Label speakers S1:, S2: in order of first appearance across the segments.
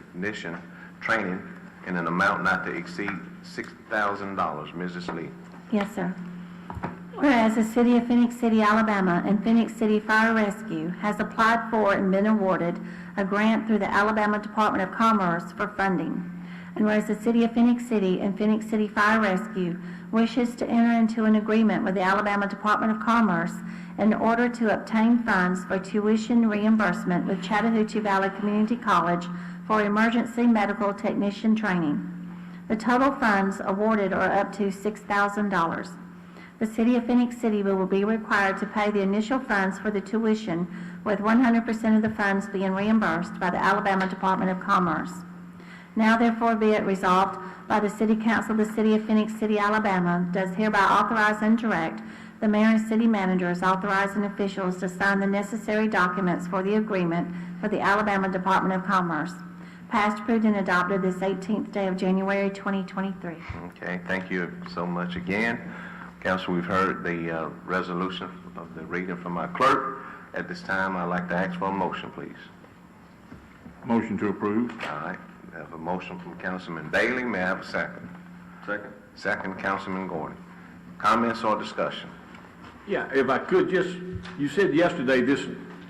S1: technician training in an amount not to exceed $6,000. Mrs. Lee.
S2: Yes, sir. Whereas the City of Phoenix City, Alabama and Phoenix City Fire Rescue has applied for and been awarded a grant through the Alabama Department of Commerce for funding. And whereas the City of Phoenix City and Phoenix City Fire Rescue wishes to enter into an agreement with the Alabama Department of Commerce in order to obtain funds for tuition reimbursement with Chattahoochee Valley Community College for emergency medical technician training. The total funds awarded are up to $6,000. The City of Phoenix City will be required to pay the initial funds for the tuition, with 100% of the funds being reimbursed by the Alabama Department of Commerce. Now therefore be it resolved by the City Council of the City of Phoenix City, Alabama, does hereby authorize and direct the mayor and city managers authorizing officials to sign the necessary documents for the agreement for the Alabama Department of Commerce. Passed, approved, and adopted this 18th day of January 2023.
S1: Okay, thank you so much again. Council, we've heard the uh, resolution of the reading from our clerk. At this time, I'd like to ask for a motion, please.
S3: Motion to approve.
S1: All right, we have a motion from Councilman Bailey, may I have a second? Second. Second, Councilman Gordon. Comments or discussion?
S3: Yeah, if I could, just, you said yesterday this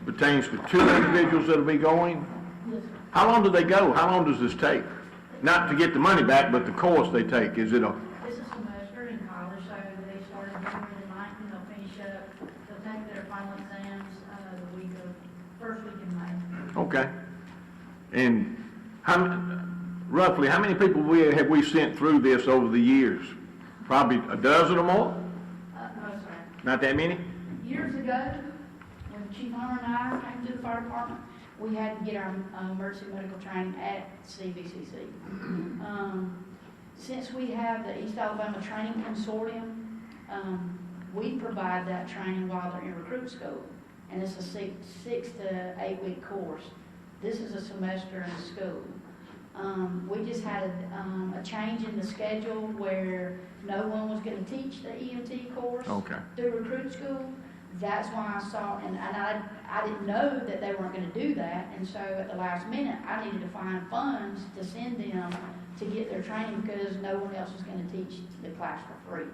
S3: pertains to two individuals that'll be going? How long do they go? How long does this take? Not to get the money back, but the course they take, is it a,
S4: This is semester in college, so they start in February the ninth, and they'll finish up, they'll take their final exams, uh, the week of, first week in May.
S3: okay. And how, m- roughly, how many people we, have we sent through this over the years? Probably a dozen or more?
S4: Uh, no, sir.
S3: Not that many?
S4: Years ago, when Chief Hunter and I came to the fire department, we had to get our uh, emergency medical training at CVCC. Um, Since we have the East Alabama Training Consortium, um, we provide that training while they're in recruit school. And it's a six, six to eight week course. This is a semester in school. Um, We just had um, a change in the schedule where no one was going to teach the EMT course
S3: Okay.
S4: through recruit school. That's why I saw, and, and I, I didn't know that they weren't gonna do that, and so at the last minute, I needed to find funds to send them to get their training, because no one else was gonna teach the class for free.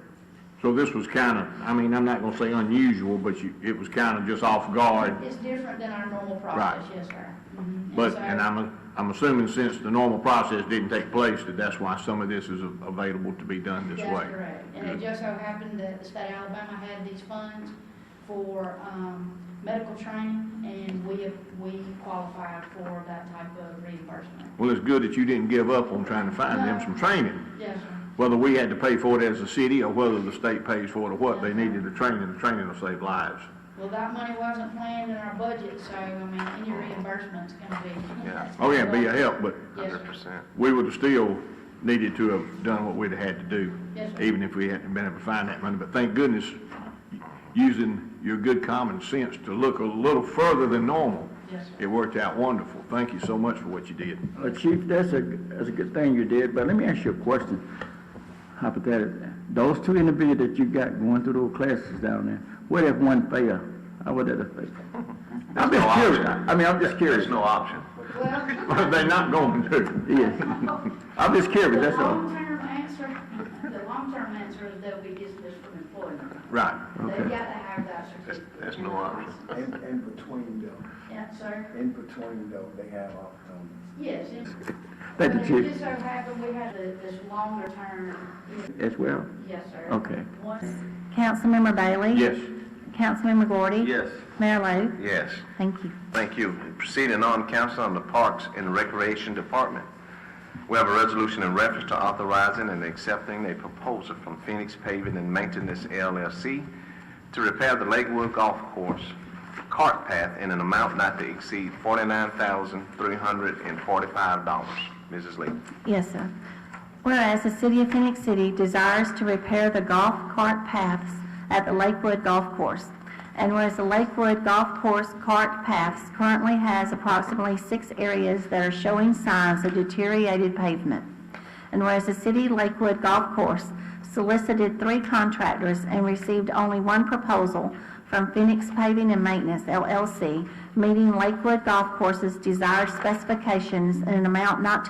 S3: So this was kind of, I mean, I'm not gonna say unusual, but you, it was kind of just off guard.
S4: It's different than our normal process, yes, sir. Mhm.
S3: But,
S4: so-
S3: and I'm, I'm assuming since the normal process didn't take place, that that's why some of this is a- available to be done this way.
S4: That's correct. And it
S3: Good.
S4: just so happened that the state of Alabama had these funds for, um, medical training, and we, we qualified for that type of reimbursement.
S3: Well, it's good that you didn't give up on trying to find them some training,
S4: Yes, sir.
S3: whether we had to pay for it as a city or whether the state pays for it or what. They needed the training, the training will save lives.
S4: Well, that money wasn't planned in our budget, so, I mean, any reimbursement's gonna be.
S1: Yeah.
S3: Oh, yeah, be a help, but
S4: Yes, sir.
S1: 100%.
S3: we would have still needed to have done what we'd had to do.
S4: Yes, sir.
S3: Even if we hadn't been able to find that money, but thank goodness, using your good common sense to look a little further than normal.
S4: Yes, sir.
S3: It worked out wonderful. Thank you so much for what you did.
S5: Uh, Chief, that's a, that's a good thing you did, but let me ask you a question. Hypothetically, those two individuals that you got going through those classes down there, what if one fail? How would that affect? I'm
S1: There's no
S5: just curious.
S1: option.
S5: I mean, I'm just
S1: There's
S5: curious.
S1: no option.
S4: Well,
S3: They're not going to.
S5: Yes. I'm just curious,
S4: the
S5: that's all.
S4: long-term answer, the long-term answer is they'll be dismissed from employment.
S3: Right.
S4: They've got to have that certificate.
S1: There's no option.
S6: In, in between though,
S4: Yeah, sir.
S6: in between though, they have um,
S4: Yes.
S6: opportunities.
S4: and-
S5: Thank you,
S4: but It
S5: Chief.
S4: just so happened we had the- this longer-term,
S5: As well?
S4: yes, sir.
S5: Okay.
S4: Once
S2: Councilmember Bailey?
S3: Yes.
S2: Councilmember Gordy? Mayor Lo?
S1: Yes,
S2: Thank you.
S1: thank you. Proceeding on, Council on the Parks and Recreation Department. We have a resolution in reference to authorizing and accepting a proposal from Phoenix Paving and Maintenance LLC to repair the Lakewood Golf Course cart path in an amount not to exceed $49,345. Mrs. Lee.
S2: Yes, sir. Whereas the City of Phoenix City desires to repair the golf cart paths at the Lakewood Golf Course, and whereas the Lakewood Golf Course cart paths currently has approximately six areas that are showing signs of deteriorated pavement, and whereas the City Lakewood Golf Course solicited three contractors and received only one proposal from Phoenix Paving and Maintenance LLC, meeting Lakewood Golf Course's desired specifications in an amount not to